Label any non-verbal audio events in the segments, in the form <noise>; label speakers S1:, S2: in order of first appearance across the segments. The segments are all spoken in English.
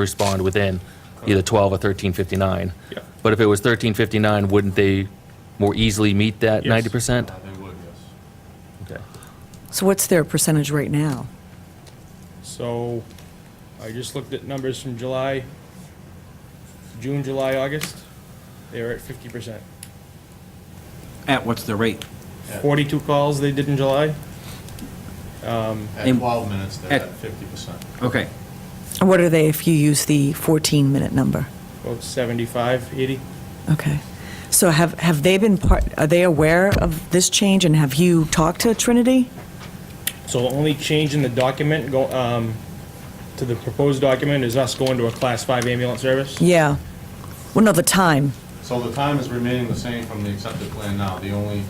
S1: respond within either 12 or 1359.
S2: Yeah.
S1: But if it was 1359, wouldn't they more easily meet that
S2: Yes.
S1: 90%?
S3: Uh, They would, yes.
S1: Okay.
S4: So what's their percentage right now?
S2: So I just looked at numbers from July, June, July, August. They were at fifty percent.
S5: At what's the rate?
S2: Forty-two calls they did in July. Um,
S3: At
S5: And-
S3: 12 minutes, they're
S5: at-
S3: at 50%.
S5: Okay,
S4: And What are they if you use the 14-minute number?
S2: about seventy-five, eighty.
S4: Okay. So have, have they been part, are they aware of this change and have you talked to Trinity?
S2: So the only change in the document, go, um, to the proposed document is us going to a class five ambulance service.
S4: Yeah. Well, no, the time.
S3: So the time is remaining the same from the accepted plan now. The only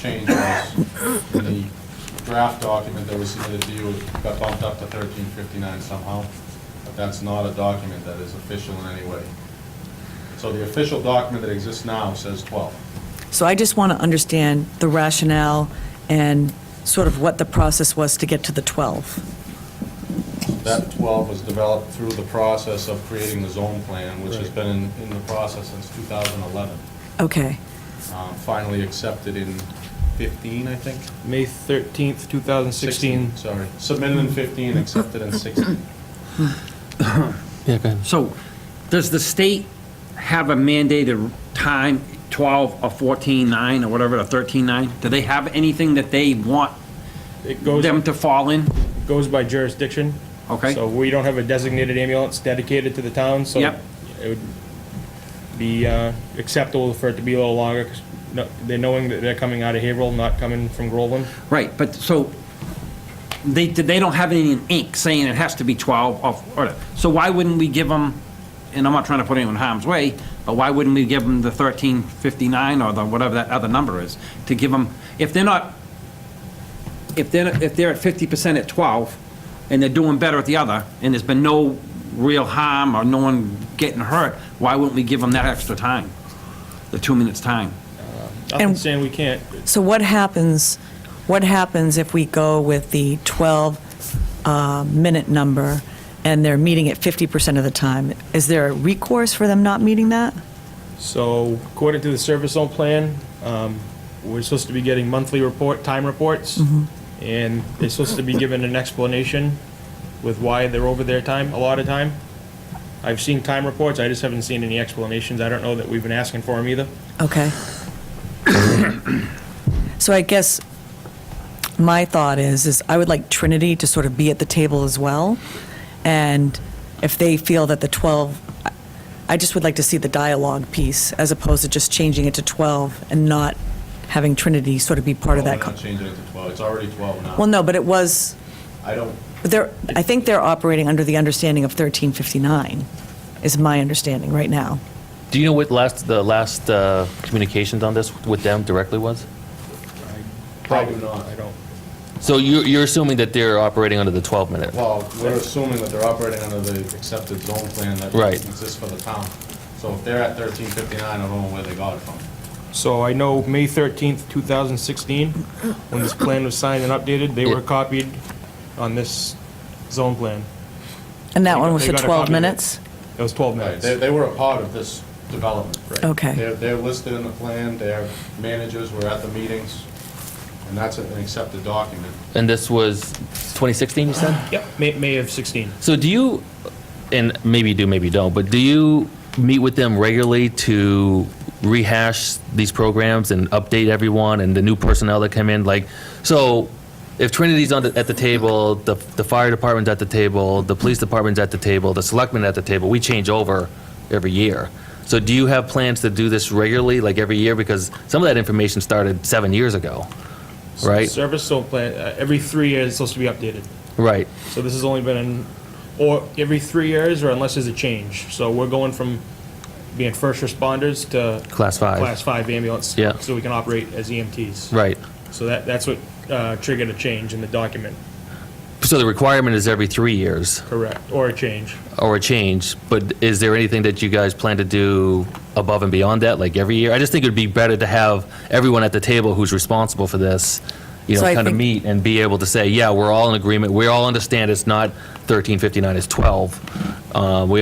S3: change was in the draft document that was submitted to you, it got bumped up to 1359 somehow, but that's not a document that is official in any way. So the official document that exists now says 12.
S4: So I just want to understand the rationale and sort of what the process was to get to the 12.
S3: That 12 was developed through the process of creating the zone plan, which has
S2: Right.
S3: been in in the process since 2011.
S4: Okay.
S3: Um, Finally accepted in 15, I think?
S2: May thirteenth, two thousand sixteen.
S3: Sorry. Submitted in 15, accepted in 16.
S1: Yeah, go ahead.
S5: so does the state have a mandated time, 12 or 14, 9 or whatever, or 13, 9? Do they have anything that they want
S2: It goes,
S5: them to fall in?
S2: goes by jurisdiction.
S5: Okay.
S2: So we don't have a designated ambulance dedicated to the town, so.
S5: Yep.
S2: It would be uh, acceptable for it to be a little longer, 'cause no- they're knowing that they're coming out of Haverhill, not coming from Groveland.
S5: Right, but so they, they don't have any in ink saying it has to be 12 or, or- so why wouldn't we give them, and I'm not trying to put anyone in harm's way, but why wouldn't we give them the 1359 or the, whatever that other number is, to give them, if they're not, if they're, if they're at 50% at 12 and they're doing better at the other, and there's been no real harm or no one getting hurt, why wouldn't we give them that extra time? The two minutes time?
S2: Nothing
S4: And-
S2: saying we can't.
S4: So what happens, what happens if we go with the 12-minute number and they're meeting it 50% of the time? Is there a recourse for them not meeting that?
S2: So according to the service zone plan, um, we're supposed to be getting monthly report, time reports, and they're supposed to be given an explanation with why they're over their time, a lot of time. I've seen time reports, I just haven't seen any explanations. I don't know that we've been asking for them either.
S4: Okay. <coughs> So I guess my thought is, is I would like Trinity to sort of be at the table as well. And if they feel that the 12, I- I just would like to see the dialogue piece as opposed to just changing it to 12 and not having Trinity sort of be <clears throat> part of
S3: Well,
S4: that.
S3: we're
S4: co-
S3: not changing it to 12, it's already 12 now.
S4: Well, no, but it was,
S3: I don't,
S4: but they're, I think they're operating under the understanding of 1359, is my understanding right now.
S1: Do you know what last, the last uh, communications on this with them directly was?
S3: probably not.
S2: I don't.
S1: So you're, you're assuming that they're operating under the 12-minute?
S3: Well, we're assuming that they're operating under the accepted zone plan that
S1: Right.
S3: exists for the town. So if they're at 1359, I don't know where they got it from.
S2: So I know May 13th, 2016, when this plan was signed and updated, they were
S1: Yeah.
S2: copied on this zone plan.
S4: And that
S2: They
S4: one
S2: got-
S4: was
S2: they
S4: the
S2: got a
S4: 12
S2: copy of it.
S4: minutes?
S2: It was 12
S3: Right,
S2: minutes.
S3: they, they were a part of this development.
S4: Okay.
S3: They're, they're listed in the plan, their managers were at the meetings, and that's an accepted document.
S1: And this was 2016, you said?
S2: Yep, May, May of 16.
S1: So do you, and maybe you do, maybe you don't, but do you meet with them regularly to rehash these programs and update everyone and the new personnel that come in? Like, so if Trinity's on the, at the table, the, the fire department's at the table, the police department's at the table, the selectmen at the table, we change over every year. So do you have plans to do this regularly, like every year? Because some of that information started seven years ago, right?
S2: Service zone plan, uh, every three years it's supposed to be updated.
S1: Right.
S2: So this has only been, in- or every three years, or unless there's a change. So we're going from being first responders to.
S1: Class five.
S2: Class five ambulance.
S1: Yeah.
S2: So we can operate as EMTs.
S1: Right.
S2: So that, that's what uh, triggered a change in the document,
S1: So the requirement is every three years.
S2: correct, or a change.
S1: or a change, but is there anything that you guys plan to do above and beyond that, like every year? I just think it would be better to have everyone at the table who's responsible for this, you
S4: So
S1: know,
S4: I
S1: kind of
S4: think-
S1: meet and be able to say, yeah, we're all in agreement, we all understand it's not 1359, it's 12. Uh, We